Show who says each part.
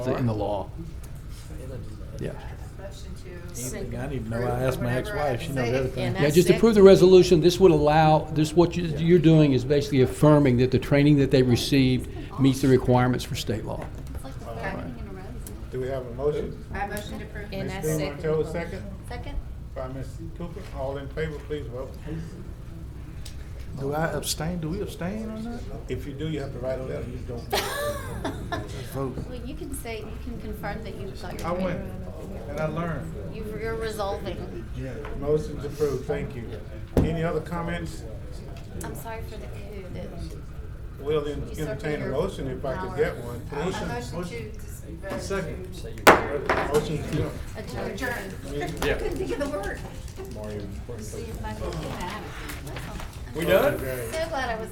Speaker 1: in the law. Yeah.
Speaker 2: Motion to.
Speaker 3: Anything
Speaker 2: approve
Speaker 3: I need to know, I asked my
Speaker 2: whatever I
Speaker 3: ex-wife, she knows
Speaker 2: say.
Speaker 3: everything.
Speaker 1: Yeah, just approve the resolution. This would allow, this, what you- you're doing is basically affirming that the training that they received meets the requirements for state law.
Speaker 4: It's like the third meeting in a row, isn't it?
Speaker 5: Do we have a motion?
Speaker 2: I motion to approve.
Speaker 3: And I
Speaker 5: Ms. Bill
Speaker 3: second
Speaker 5: Montel, second,
Speaker 4: Second?
Speaker 5: by Ms. Cooper. All in favor, please vote.
Speaker 3: Do I abstain, do we abstain on that?
Speaker 5: If you do, you have to write a letter. You don't.
Speaker 3: Vote.
Speaker 4: Well, you can say, you can confirm that you've got your.
Speaker 5: I went
Speaker 4: training.
Speaker 5: and I learned.
Speaker 4: You've- You're resolving.
Speaker 5: Motion's approved. Thank you. Any other comments?
Speaker 4: I'm sorry for the coup that.
Speaker 5: We'll en- entertain a motion if I could get one,
Speaker 2: A
Speaker 5: please.
Speaker 2: motion to. dis- uh,
Speaker 5: Second.
Speaker 2: to
Speaker 5: Motion to
Speaker 4: adjourned.
Speaker 2: Adjourn. Couldn't think of the word.
Speaker 4: See if I can get that.
Speaker 5: We done?
Speaker 4: So glad I was